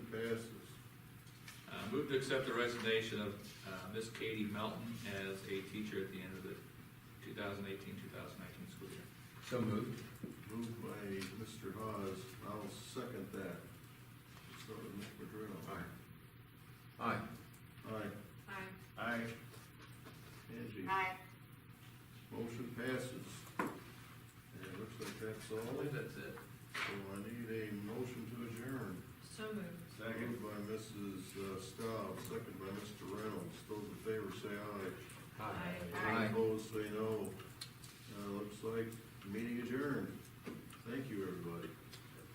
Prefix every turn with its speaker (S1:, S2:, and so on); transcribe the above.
S1: Uh, to accept the resignation of uh, Miss Katie Melton as a teacher at the end of the 2018-2019 school year.
S2: So moved.
S3: Moved by Mr. Hawes, I'll second that. Let's start with Mr. Pedrino. Aye.
S2: Aye.
S3: Aye.
S4: Aye.
S3: Aye. Angie,
S4: Aye.
S3: motion passes. And it looks like that's
S1: I
S3: all,
S1: believe that's it.
S3: so I need a motion to adjourn.
S4: So moved.
S3: Moved by Mrs. Staub, second by Mr. Reynolds, those in favor say aye.
S4: Aye.
S3: Opposed, say no. Uh, looks like meeting adjourned.